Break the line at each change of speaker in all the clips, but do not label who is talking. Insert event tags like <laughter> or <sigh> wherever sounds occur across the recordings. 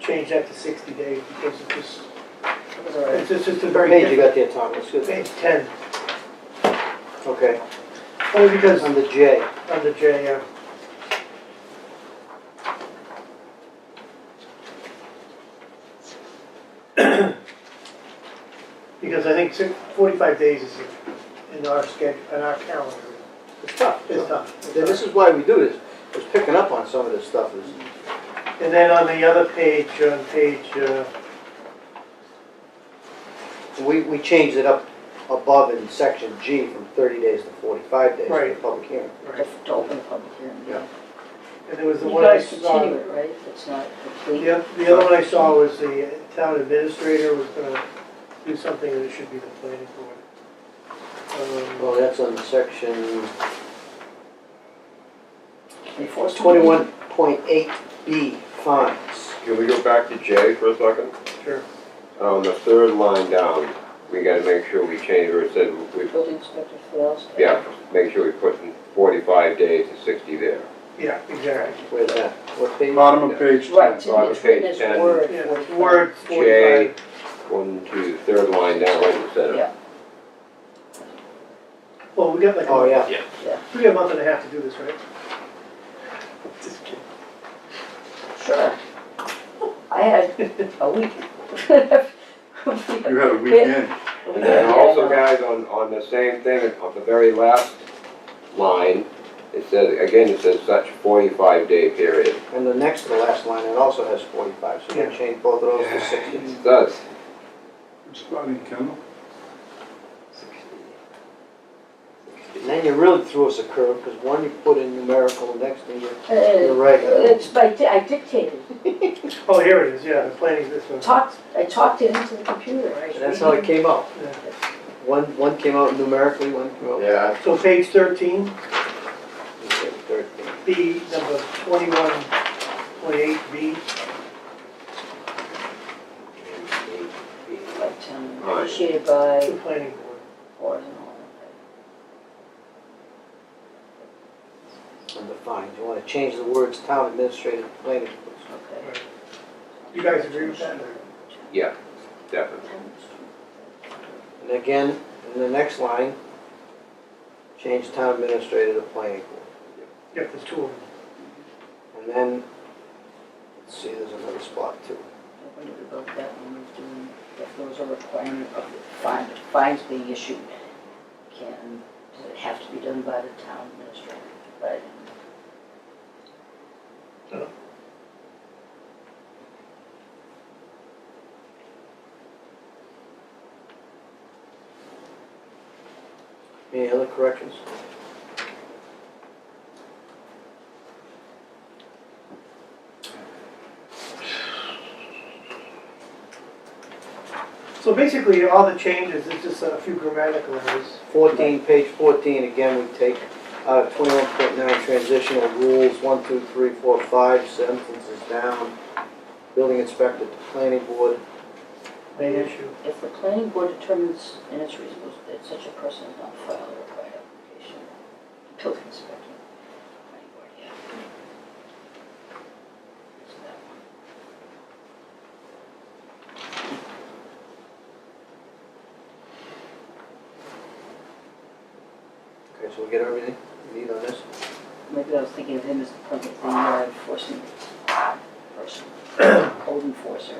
change that to 60 days because it just,
That's all right.
it's just- it's a
What
very
page you
different.
got there, Tom? That's good.
Page 10,
Okay,
only because
under J.
under J, uh, <clears throat> because I think si- 45 days is in our schedule, in our calendar.
It's tough.
It's tough.
Then This is why we do this, is picking up on some of this stuff is,
And then on the other page, on page, uh,
we, we changed it up above in section G from thirty days to forty-five days for the
Right.
public hearing.
right,
to to open the public hearing.
Yeah.
and there was the
You
one uh, I
guys
saw.
continue it, right? It's not complete.
The oth- the other one I saw was the town administrator was gonna do something that it should be the planning board. Um,
Well, that's on section
Before something-
twenty-one point eight B fines.
Can we go back to J for a second?
Sure.
On the third line down, we gotta make sure we change where it said, we,
Building inspector fails.
yeah, make sure we put in forty-five days to sixty there.
Yeah, exactly.
Where's that? What page?
Bottom of page
Right,
10.
so it's written as
Ten.
word.
Yeah,
forty-five.
word
J,
forty-five.
one, two, third line down, right, you said
Yeah.
it.
Well, we got like,
Oh,
a-
yeah.
we got a month and a half to do this, right? Just
Sure. I had a week. <laughs> We
You had a weekend.
And
had-
then also, guys, on, on the same thing, on the very last line, it says, again, it says such forty-five day period.
And the next to the last line, it also has forty-five, so we
Yeah.
change both of those to sixty.
It does.
It's not in Kendall.
And then you really threw us a curve, because one you put in numerical, the next thing you
Uh,
You're right.
It's by, di- I dictated.
kidding. Oh, here it is, yeah, the planning, this one.
Talked, I talked it into the computer. I was
And that's how it
reading.
came out.
Yeah.
One, one came out numerically, one came out.
Yeah.
So page thirteen,
Thirteen.
B, number twenty-one, twenty-eight, B.
By ten,
Right.
Initiated
The
by
planning board.
board and all.
And the fines, you wanna change the words town administrative planning.
Okay.
You guys agree with that? or?
Yeah, definitely.
And again, in the next line, change town administrator to planning board.
Yep, there's two of them.
And then, let's see, there's another spot too.
When we vote that one, we're doing, that there was a requirement of the fine, fines being issued. Can, does it have to be done by the town administrator? But
Any other corrections?
So basically, all the changes, it's just a few grammatical errors.
Fourteen, page fourteen, again, we take out of twenty-one point nine transitional rules, one, two, three, four, five, sentences down. Building inspector to planning board,
Main
Mm-hmm.
issue.
if the planning board determines in its reasonable that such a person has not filed a required application, building inspector, planning board, yeah. So that one.
okay, so we get everything we need on this?
Maybe I was thinking of him as the permit, the uh, enforcement person, code enforcer.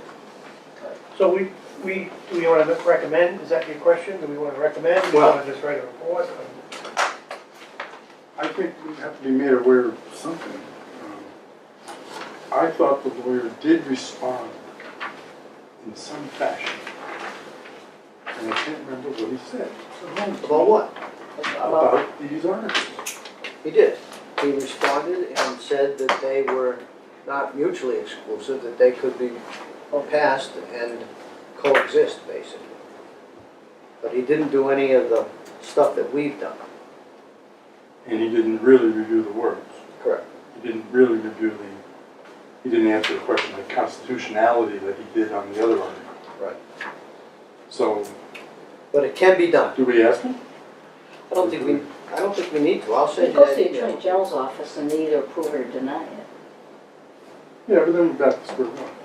So we, we, do we want to recommend, is that your question? Do we want to recommend? Do we
Well-
want to just write a report?
I think we have to be made aware of something. Um, I thought the lawyer did respond in some fashion. And I can't remember what he said
About what?
About
about these articles.
He did. He responded and said that they were not mutually exclusive, that they could be passed and coexist, basically. But he didn't do any of the stuff that we've done.
And he didn't really review the words.
Correct.
He didn't really review the, he didn't answer the question of constitutionality that he did on the other article.
Right.
So,
But it can be done.
do we ask him?
I don't think we, I don't think we need to, I'll send
It
you
goes to
that
the
email.
Attorney General's office and they either approve it or deny it.
Yeah, but then we're back to square one.